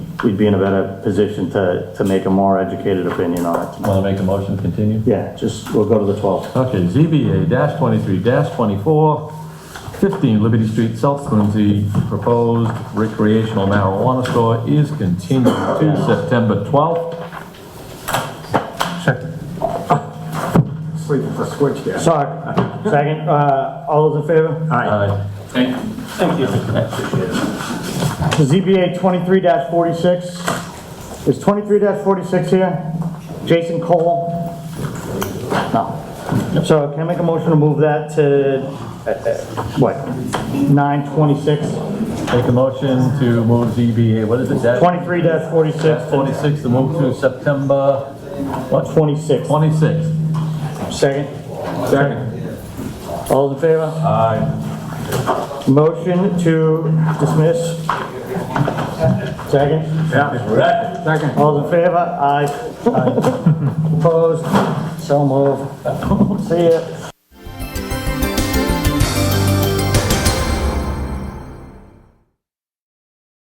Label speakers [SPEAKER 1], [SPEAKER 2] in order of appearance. [SPEAKER 1] we'd be in a better position to, to make a more educated opinion on it.
[SPEAKER 2] Want to make the motion to continue?
[SPEAKER 1] Yeah, just, we'll go to the 12th.
[SPEAKER 2] Okay, ZBA dash twenty-three dash twenty-four, fifteen Liberty Street, South Quincy, proposed recreational marijuana store is continued to September twelfth.
[SPEAKER 3] Sleep with a switch there.
[SPEAKER 1] Sorry, second, uh, all those in favor?
[SPEAKER 2] Aye.
[SPEAKER 1] Thank you. ZBA 23-46. Is 23-46 here? Jason Cole? No. So can I make a motion to move that to, uh, uh, what, 9/26?
[SPEAKER 2] Make a motion to move ZBA, what is it, dash
[SPEAKER 1] 23-46 to
[SPEAKER 2] twenty-six, to move to September, what,
[SPEAKER 1] 26.
[SPEAKER 2] twenty-sixth?
[SPEAKER 1] Second?
[SPEAKER 2] Second.
[SPEAKER 1] All those in favor?
[SPEAKER 2] Aye.
[SPEAKER 1] Motion to dismiss? Second?
[SPEAKER 2] Yeah. Second.
[SPEAKER 1] All those in favor? Aye. Opposed? So moved. See ya.